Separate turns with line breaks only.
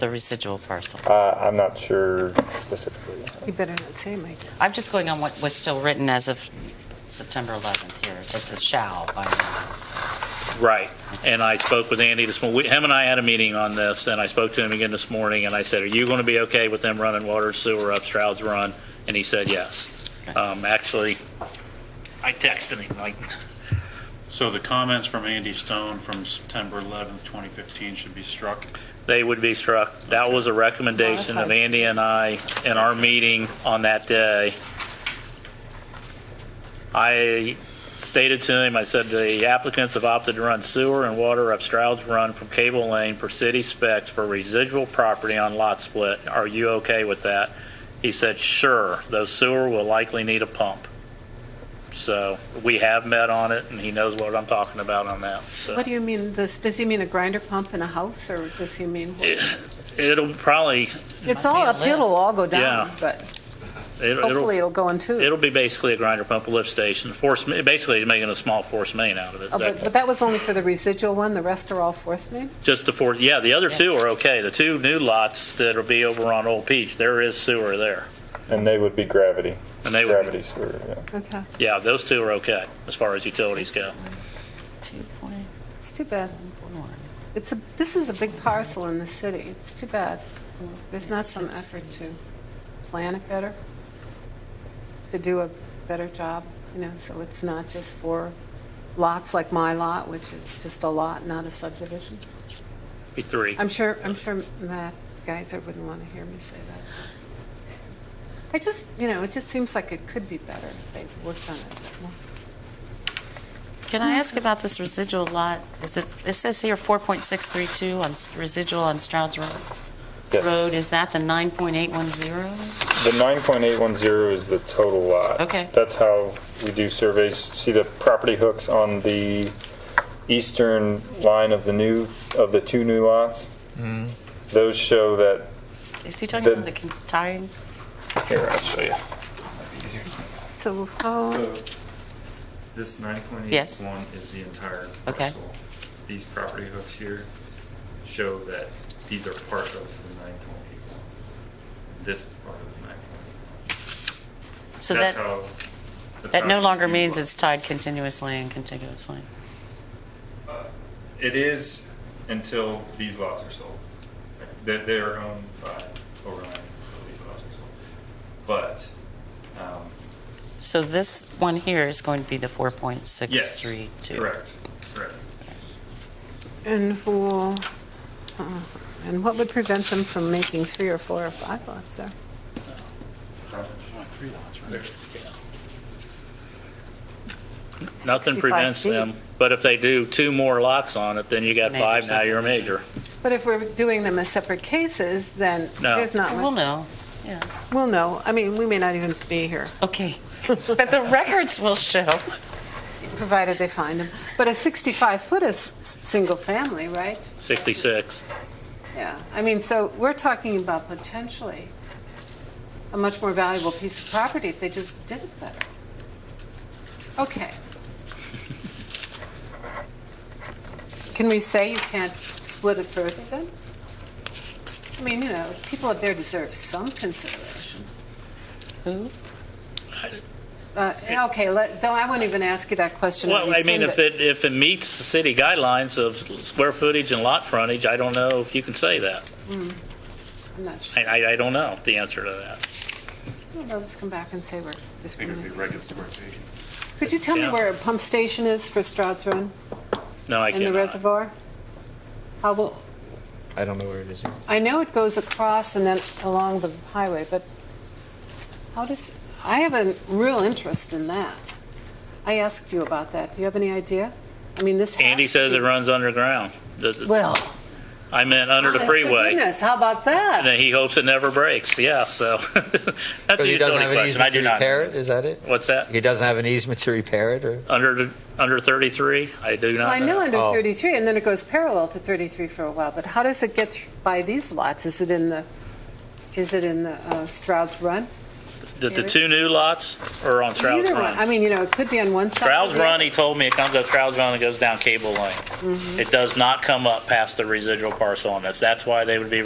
the residual parcel.
Uh, I'm not sure specifically.
You better not say, Mike.
I'm just going on what was still written as of September 11th here. It's a shall by now. so.
Right. And I spoke with Andy this morning. Him and I had a meeting on this, and I spoke to him again this morning, and I said, "Are you going to be okay with them running water sewer up Stroud's Run?" And he said, "Yes." Um, actually, I texted him like,
So the comments from Andy Stone from September 11th, 2015 should be struck.
they would be struck. That was a recommendation of Andy and I in our meeting on that day. I stated to him, I said, the applicants have opted to run sewer and water up Stroud's Run from Cable Lane for city specs for residual property on lot split. Are you okay with that? He said, sure, though sewer will likely need a pump. So we have met on it, and he knows what I'm talking about on that, so.
What do you mean, this, does he mean a grinder pump in a house, or does he mean?
It'll probably,
It's all
Might be a
uphill, it'll all go
Yeah.
down, but
it'll. it'll-
hopefully it'll go in two.
It'll be basically a grinder pump, a lift station, force, ma- basically he's making a small force main out of it.
Oh, But but that was only for the residual one, the rest are all fourth main?
Just the four, yeah, the other two are okay. The two new lots that'll be over on Old Peach, there is sewer there.
And they would be gravity.
And they would be-
gravity sewer. Yeah.
Okay,
Yeah, those two are okay as far as utilities go.
it's too bad. It's a, this is a big parcel in the city, it's too bad. There's not some effort to plan it better, to do a better job, you know, so it's not just for lots like my lot, which is just a lot, not a subdivision.
Be three.
I'm sure, I'm sure Matt Geiser wouldn't want to hear me say that. I just, you know, it just seems like it could be better if they worked on it a bit more.
Can I ask about this residual lot? Is it, it says here 4.632 on s- residual on Stroud's Road.
Yes.
Road, is that the 9.810?
The 9.810 is the total lot.
Okay.
That's how we do surveys. See the property hooks on the eastern line of the new of the two new lots.
Mm-hmm.
Those show that.
Is he talking
The-
about the con- tying?
Here, I'll show you.
So how,
So this 9.81
Yes.
is the entire
Okay.
parcel. These property hooks here show that these are part of the 9.81. This is part of the 9.81.
So
That's
that,
how- that's
that
how
no
you
longer
do
means
it.
it's tied continuously and contiguously.
It is until these lots are sold. They're, they're owned by Orion until these lots are sold. But, um,
So this one here is going to be the 4.632.
yes, correct, correct.
and who, uh, and what would prevent them from making three or four or five lots there?
Nothing
65
prevents
feet.
them, but if they do two more lots on it, then you got
major
five, now you're a major.
But if we're doing them as separate cases, then
No.
there's not,
We'll
much-
know, yeah.
we'll know, I mean, we may not even be here,
Okay. But the records will show.
provided they find them. But a 65-foot is s- single family, right?
66.
Yeah, I mean, so we're talking about potentially a much more valuable piece of property if they just did it better. Okay. Can we say you can't split it further then? I mean, you know, people up there deserve some consideration.
Who?
Uh, Okay, let, don't, I wouldn't even ask you that question.
Well, I mean,
Rescind
if it, if it meets the city guidelines of square footage and lot frontage, I don't know if you can say that.
I'm not sure.
I, I I don't know the answer to that.
They'll just come back and say we're
It would be
discriminating.
regular conversation.
Could you tell me
Yeah.
where a pump station is for Stroud's Run?
No, I
In
cannot.
the reservoir? How will,
I don't know where it is.
I know it goes across and then along the highway, but how does, I have a real interest in that. I asked you about that. Do you have any idea? I mean, this has
Andy
to
says
be-
it runs underground. Does it-
Well.
I meant under the
honest to
freeway.
Goodness, how about that?
And then he hopes it never breaks. Yeah, so that's a
So he doesn't
utility
have an
question. I
easement
do
to
not.
repair it? Is that it?
What's that?
He doesn't have an easement to repair it, or?
Under the, under 33? I do
Well, I
not
know
know.
under
Oh.
33, and then it goes parallel to 33 for a while, but how does it get th- by these lots? Is it in the, is it in the uh, Stroud's Run?
The, the two new lots are on Stroud's
Either one. I
Run.
mean, you know, it could be on one side. or
Stroud's
the other.
Run, he told me it comes up Stroud's Run and
Mm-hmm.
goes down Cable Lane. It does not come up past the residual parcel on this. That's why they would be